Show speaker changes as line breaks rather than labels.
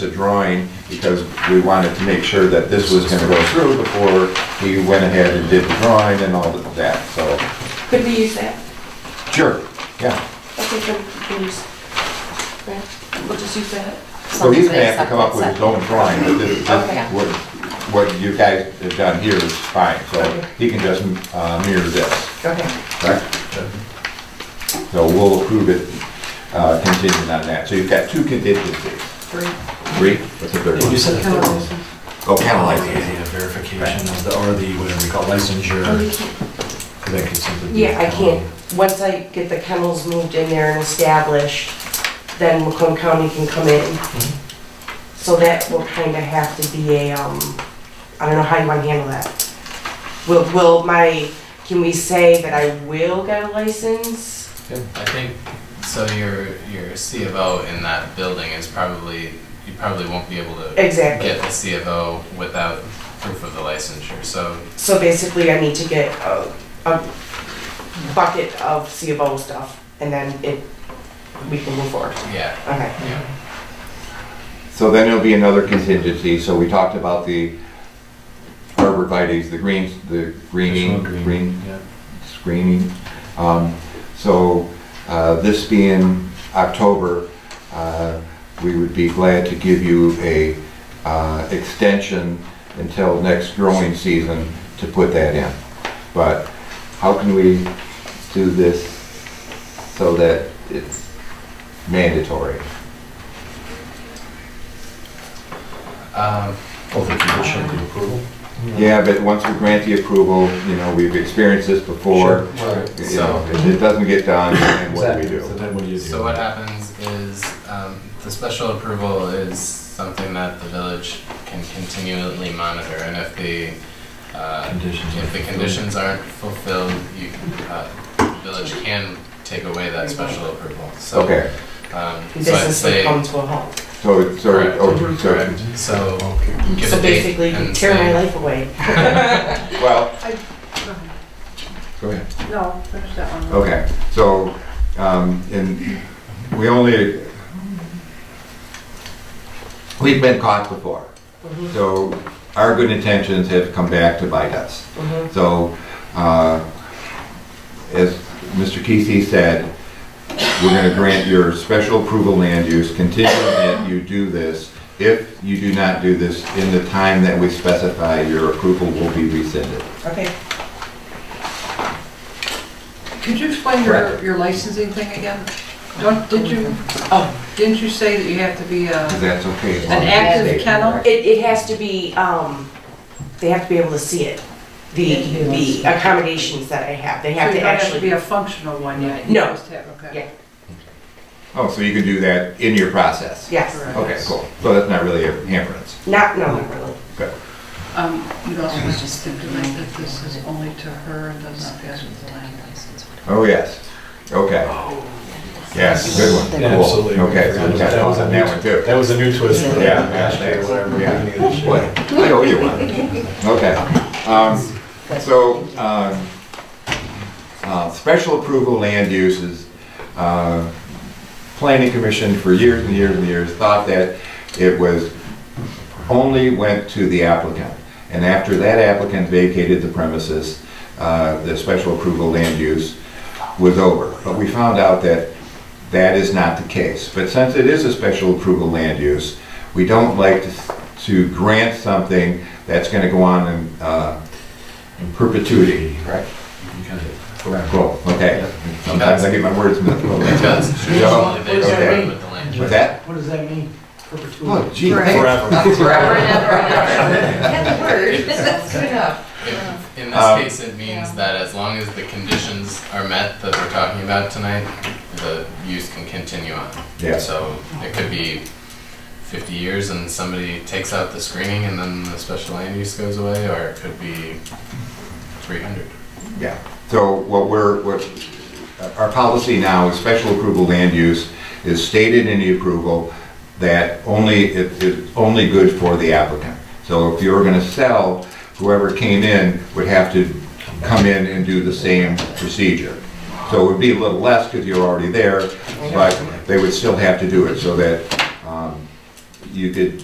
the drawing because we wanted to make sure that this was gonna go through before we went ahead and did the drawing and all of that, so,
Could we use that?
sure, yeah.
Okay, so we can use that. We'll just use that.
So he's gonna have to come up with his own drawing, but this, this-
Okay.
what, what you guys have done here is fine, so he can just, uh, mirror this.
Okay.
Right. So we'll approve it uh, contingent on that. So you've got two contingencies. Three? What's the third
You said the third one.
Oh,
Like the idea of verification of the, or the, whatever you call licensure, that could simply be.
Oh, Yeah, I can't, once I get the kennels moved in there and established, then Macomb County can come in. So that will kinda have to be a, um, I don't know how you wanna handle that. Will, will my, can we say that I will get a license?
I think so. Your your C of O in that building is probably you probably won't be able to
Exactly,
get the C of O without proof of the licensure. So
so basically I need to get a, a bucket of C of O stuff, and then it, we can move forward,
yeah,
okay.
yeah.
So then there'll be another contingency. So we talked about the arborvitae's, the greens, the greening,
Additional
green
Yeah.
screening. Um, So uh, this being October, uh, we would be glad to give you a uh, extension until next growing season to put that in. But how can we do this so that it's mandatory?
Um,
Both the condition of the approval.
Yeah, but once we grant the approval, you know, we've experienced this before.
Right.
You know, if it doesn't get done, then what do we
Exactly.
do?
So then what do you do?
so what happens is um, the special approval is something that the village can continually monitor, and if the uh,
Conditions.
if the conditions aren't fulfilled, you uh, the village can take away that special approval. So
Okay.
um, so I'd
Business would
say.
come to a halt.
So, it's- so,
Correct.
oh, so,
Correct. So give
So
a date
basically,
and
tear my
say-
life away.
well. Go ahead.
No, finish that one.
Okay, so, um, and we only, we've been caught before. So our good intentions have come back to bite us. So, uh, as Mr. Kesey said, we're gonna grant your special approval land use contingent that you do this. If you do not do this in the time that we specify, your approval will be rescinded.
Okay.
Could you explain your, your licensing thing again? Don't, did you, oh, didn't you say that you have to be
If
a,
that's okay. as long as
an
you
active
stay-
kennel?
It, it has to be, um, they have to be able to see it, the, the accommodations that I have, they have to
So you don't have to
actually.
be a functional one yet?
No.
You just have, okay.
Yeah.
Oh, so you can do that in your process?
Yes,
Correct.
Okay, cool. So that's not really a hindrance.
not, no, not really.
Good.
Um, you also was just stipulate that this is only to her and does not pass with the land.
Oh, yes. Okay. Yes, good one.
Yeah,
Cool.
Absolutely.
Okay, so we got
That was a
on
new-
that one too.
That was a new twist. for the
Yeah.
last year, whatever,
Yeah.
beginning of this year.
Boy, I owe you one. Okay. Um, So, um, uh, special approval land uses, uh, planning commission for years and years and years thought that it was, only went to the applicant. And after that applicant vacated the premises, uh, the special approval land use was over. But we found out that that is not the case. But since it is a special approval land use, we don't like to, to grant something that's gonna go on in, uh, in perpetuity. Right.
Okay. Correct.
Cool, okay. Sometimes I get my words mixed
It
up.
does.
Yeah.
Usually they
Okay.
agree with the land.
With that?
What does that mean?
Oh,
Perpetuity?
gee, thanks.
Forever.
Forever and ever and ever. That's word, that's good enough.
If- In
Um,
this case, it means that as long as the conditions are met that we're talking about tonight, the use can continue on.
Yeah.
So it could be fifty years and somebody takes out the screening and then the special land use goes away, or it could be three hundred.
Yeah, so what we're, what, our policy now is special approval land use is stated in the approval that only, it is only good for the applicant. So if you were gonna sell, whoever came in would have to come in and do the same procedure. So it would be a little less because you're already there, but they would still have to do it so that um, you could